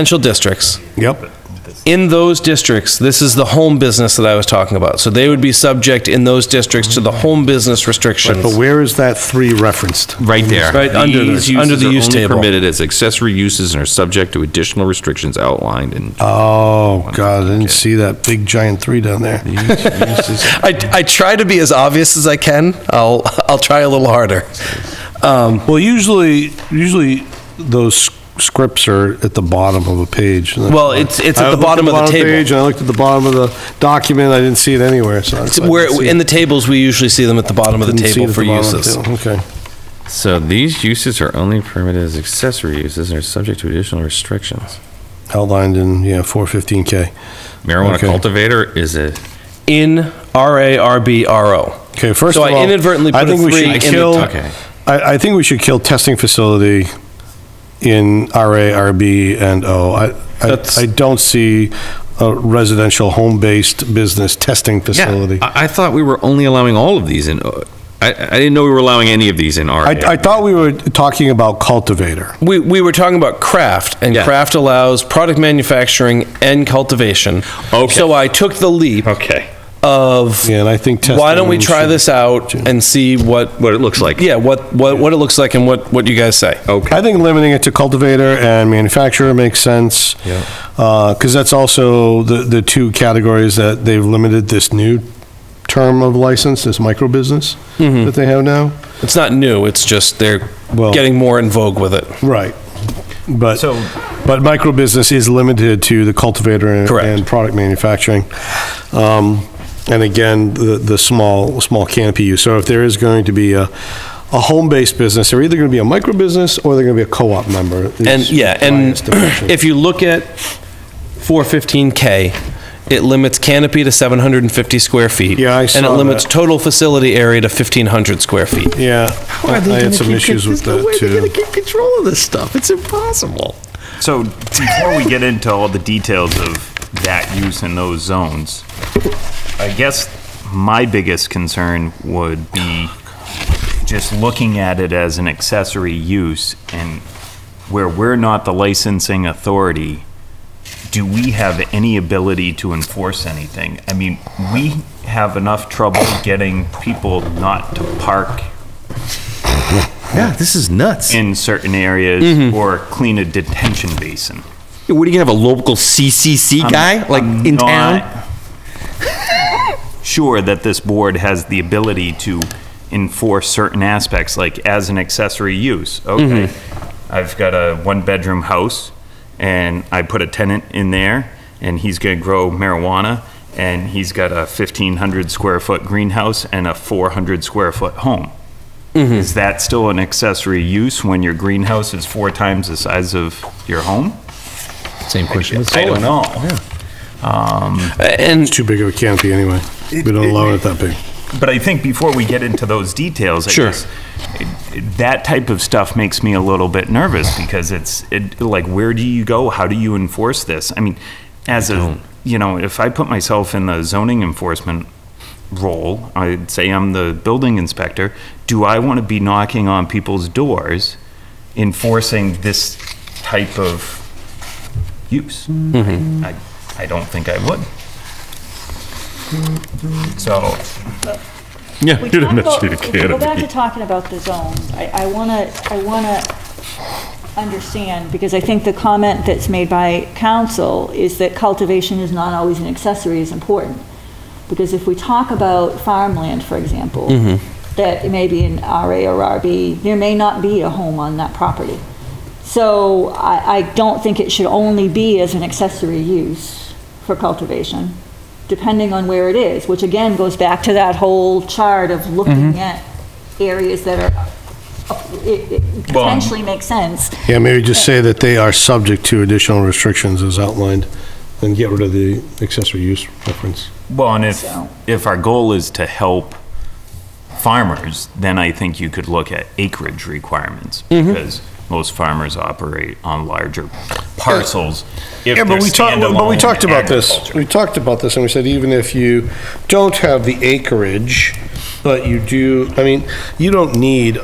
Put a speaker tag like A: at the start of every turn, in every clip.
A: residential districts.
B: Yep.
A: In those districts, this is the home business that I was talking about. So they would be subject in those districts to the home business restrictions.
B: But where is that three referenced?
C: Right there.
A: Right under the-
C: These
A: under
C: uses
A: the
C: are
A: use
C: only
A: table.
C: Permitted as accessory uses and are subject to additional restrictions outlined in.
B: Oh, God, I didn't see that big giant three down there.
A: I, I try to be as obvious as I can. I'll, I'll try a little harder. Um,
B: Well, usually, usually those scripts are at the bottom of a page.
A: Well, it's- it's at
B: I
A: the
B: looked
A: bottom of the table.
B: page, And I looked at the bottom of the document, I didn't see it anywhere, so. I
A: it's
B: couldn't
A: Where,
B: see
A: in the
B: it.
A: tables, we usually see them at the bottom of the
B: Couldn't see it
A: table
B: at
A: for
B: the bottom of the
A: uses.
B: table, Okay.
C: So these uses are only permitted as accessory uses and are subject to additional restrictions.
B: Outlined in, yeah, 415K.
C: Marijuana
B: Okay.
C: cultivator is a
A: In RA, RB, RO.
B: Okay, first
A: So
B: of all.
A: I inadvertently
B: I
A: put a
B: think we
A: three
B: should
A: in the
B: kill-
A: top.
C: Okay.
B: I, I think we should kill testing facility in RA, RB, and O. I, I,
A: That's-
B: I don't see a residential home-based business testing facility.
C: Yeah, I, I thought we were only allowing all of these in. uh, I, I didn't know we were allowing any of these in RA.
B: I, I thought we were talking about cultivator.
A: We, we were talking about craft, and
C: Yeah.
A: craft allows product manufacturing and cultivation.
C: Okay.
A: So I took the leap
C: okay.
A: of
B: Yeah, and I think testing.
A: why don't we try
B: should-
A: this out and see what,
C: What it looks like.
A: yeah, what, what, what it looks like and what, what you guys say.
C: Okay.
B: I think limiting it to cultivator and manufacturer makes sense.
C: Yeah.
B: Because that's also the, the two categories that they've limited this new term of license, this micro business
A: Mm-hmm.
B: that they have now.
A: It's not new, it's just they're
B: Well-
A: getting more in vogue with it.
B: Right. But,
C: So-
B: but micro business is limited to the cultivator and-
A: Correct.
B: and product manufacturing. Um, And again, the, the small, small canopy use. So if there is going to be a, a home-based business, they're either going to be a micro business or they're going to be a co-op member. is
A: And, yeah,
B: my
A: and
B: estimation.
A: if you look at 415K, it limits canopy to 750 square feet.
B: Yeah, I
A: And it
B: saw
A: limits
B: that.
A: total facility area to 1,500 square feet.
B: Yeah, I had some issues with that too.
C: keep control of this stuff. It's impossible.
D: So before we get into all the details of that use in those zones, I guess my biggest concern would be just looking at it as an accessory use and where we're not the licensing authority, do we have any ability to enforce anything? I mean, we have enough trouble getting people not to park
C: Yeah, this is nuts.
D: in certain areas or clean a detention basin.
C: Mm-hmm. what are you gonna have a local CCC guy like
D: I'm
C: in
D: not
C: town?
D: sure that this board has the ability to enforce certain aspects, like as an accessory use. Okay,
C: Mm-hmm.
D: I've got a one-bedroom house, and I put a tenant in there, and he's going to grow marijuana, and he's got a 1,500 square foot greenhouse and a 400 square foot home. Is that still an accessory use when your greenhouse is four times the size of your home?
C: Same question.
D: I don't know. Um,
A: And
B: Too big of a canopy anyway. We don't allow it that big.
D: But I think before we get into those details, I
A: Sure.
D: guess, it- that type of stuff makes me a little bit nervous because it's it, like, where do you go? How do you enforce this? I mean, as a, you know, if I put myself in the zoning enforcement role, I'd say I'm the building inspector. Do I want to be knocking on people's doors enforcing this type of use? I, I don't think I would. So,
E: We talked about- if we go back to talking about the zones, I, I want to, I want to understand, because I think the comment that's made by council is that cultivation is not always an accessory is important. Because if we talk about farmland, for example, that it may be an RA or RB, there may not be a home on that property. So I, I don't think it should only be as an accessory use for cultivation, depending on where it is, which again goes back to that whole chart of looking at areas that are, it it
D: Well-
E: potentially makes sense.
B: Yeah, maybe just say that they are subject to additional restrictions as outlined and get rid of the accessory use reference.
D: Well, and if,
E: So-
D: if our goal is to help farmers, then I think you could look at acreage requirements.
B: Mm-hmm.
D: Because most farmers operate on larger parcels. if
B: Yeah, but
D: they're
B: we talked, but we
D: standalone
B: talked about this.
D: agriculture.
B: We talked about this, and we said even if you don't have the acreage, but you do, I mean, you don't need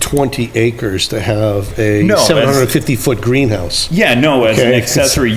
B: 20 acres to have a
D: No, that's-
B: 750-foot greenhouse.
D: Yeah, no, as an
B: Okay.
D: accessory